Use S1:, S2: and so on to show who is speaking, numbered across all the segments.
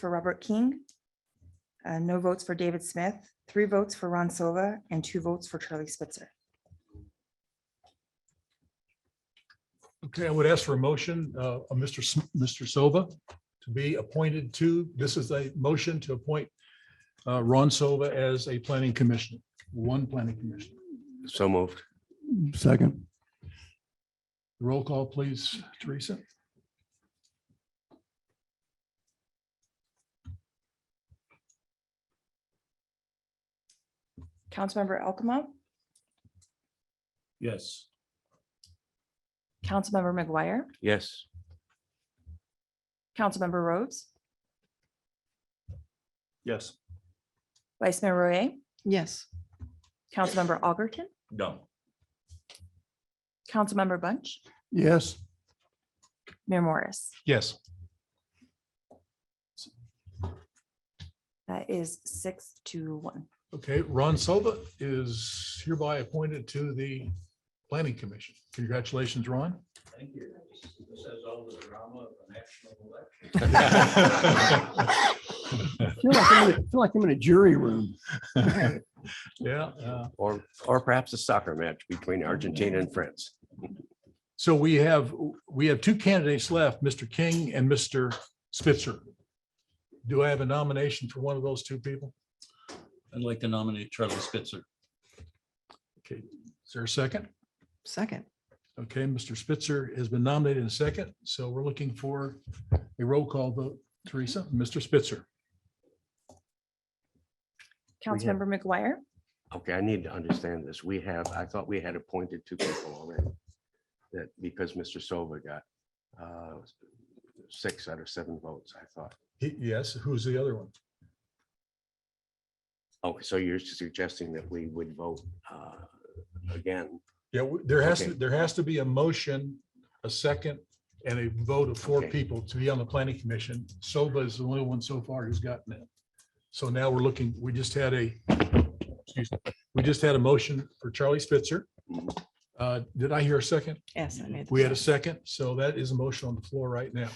S1: for Robert King. uh, No votes for David Smith, three votes for Ron Silva, and two votes for Charlie Spitzer.
S2: Okay, I would ask for a motion uh, of Mr. S- Mr. Silva to be appointed to, this is a motion to appoint uh, Ron Silva as a planning commissioner, one planning commissioner.
S3: So moved.
S4: Second.
S2: Roll call, please, Teresa.
S1: Councilmember Alcamo,
S2: Yes.
S1: Councilmember McGuire,
S3: Yes.
S1: Councilmember Rhodes,
S2: Yes.
S1: Vice Mayor Royer,
S5: yes,
S1: Councilmember Algerton,
S2: No.
S1: Councilmember Bunch,
S4: Yes.
S1: Mayor Morris.
S2: Yes.
S1: That is six to one.
S2: Okay, Ron Silva is hereby appointed to the planning commission. Congratulations, Ron.
S6: Thank you. This has all the drama of a national election.
S4: I feel like I'm in a- I feel like I'm in a jury room.
S2: Yeah. uh,
S3: Or, or perhaps a soccer match between Argentina and France.
S2: So we have, we have two candidates left, Mr. King and Mr. Spitzer. Do I have a nomination for one of those two people?
S6: I'd like to nominate Charlie Spitzer.
S2: Okay, is there a second?
S5: second,
S2: Okay, Mr. Spitzer has been nominated in second, so we're looking for a roll call vote. Teresa, Mr. Spitzer.
S3: have-
S1: Councilmember McGuire,
S3: Okay, I need to understand this. We have, I thought we had appointed two people already. That because Mr. Silva got uh, six out of seven votes, I thought.
S2: He- Yes, who's the other one?
S3: Okay, so you're suggesting that we would vote uh, again?
S2: Yeah, w- there has, to
S3: Okay.
S2: there has to be a motion, a second, and a vote of four
S3: Okay.
S2: people to be on the planning commission. Soba is the only one so far who's gotten it. So now we're looking, we just had a, excuse me, we just had a motion for Charlie Spitzer.
S3: Mhm.
S2: Uh, Did I hear a second?
S5: yes. I made the
S2: We had a
S5: second.
S2: second, so that is a motion on the floor right now.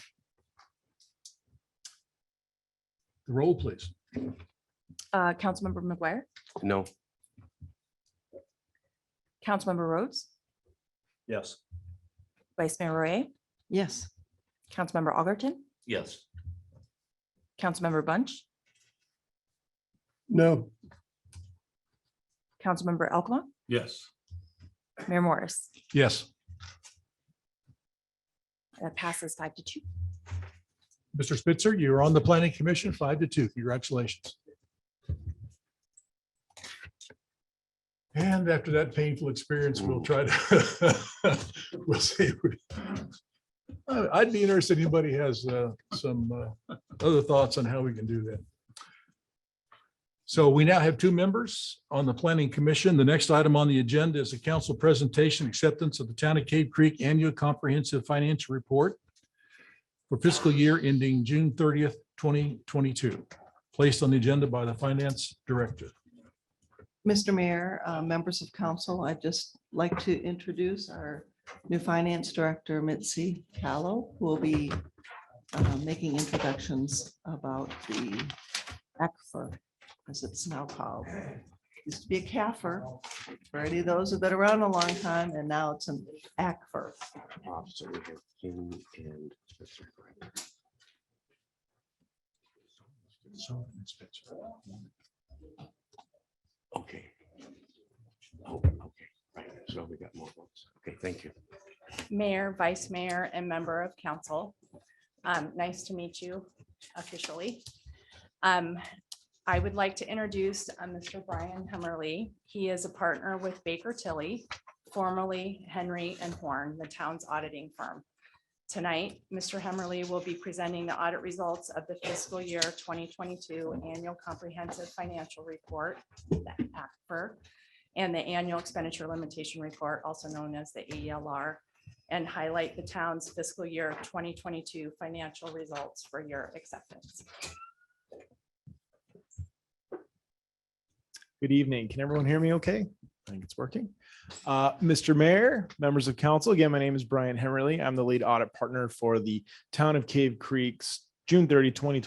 S2: The roll, please.
S1: uh, Councilmember McGuire,
S3: No,
S1: Councilmember Rhodes,
S6: Yes.
S1: Vice Mayor Royer,
S5: Yes,
S1: Councilmember Algerton,
S6: Yes.
S1: Councilmember Bunch,
S4: No.
S1: Councilmember Alcamo,
S2: Yes.
S1: Mayor Morris.
S2: Yes.
S1: That passes five to two.
S2: Mr. Spitzer, you're on the planning commission, five to two. Congratulations. And after that painful experience, we'll try to, we'll see. Uh, I'd be interested, if anybody has uh, some uh, other thoughts on how we can do that. So we now have two members on the planning commission. The next item on the agenda is a council presentation, acceptance of the Town of Cave Creek Annual Comprehensive Financial Report for fiscal year ending June thirtieth, twenty twenty-two, placed on the agenda by the finance director.
S5: Mr. Mayor, uh, members of council, I'd just like to introduce our new finance director, Mitzi Callow, who will be uh, making introductions about the ACFA, as it's now called. Used to be a CAFR, for any of those who've been around a long time, and now it's an ACFA.
S3: Oh, so we have King and Spitzer. correct. Okay. Oh, okay, right. So we got more votes. Okay, thank you.
S7: Mayor, Vice Mayor, and Member of Council. Um, Nice to meet you officially. Um, I would like to introduce uh, Mr. Brian Hemmerly. He is a partner with Baker Tilly, formerly Henry and Horn, the town's auditing firm. Tonight, Mr. Hemmerly will be presenting the audit results of the fiscal year 2022 Annual Comprehensive Financial Report, the ACFR, and the Annual Expenditure Limitation Report, also known as the AELR and highlight the town's fiscal year 2022 financial results for your acceptance.
S8: Good evening. Can everyone hear me okay? I think it's working. Uh, Mr. Mayor, members of council, again, my name is Brian Hemerly. I'm the lead audit partner for the Town of Cave Creek's June 30, 2020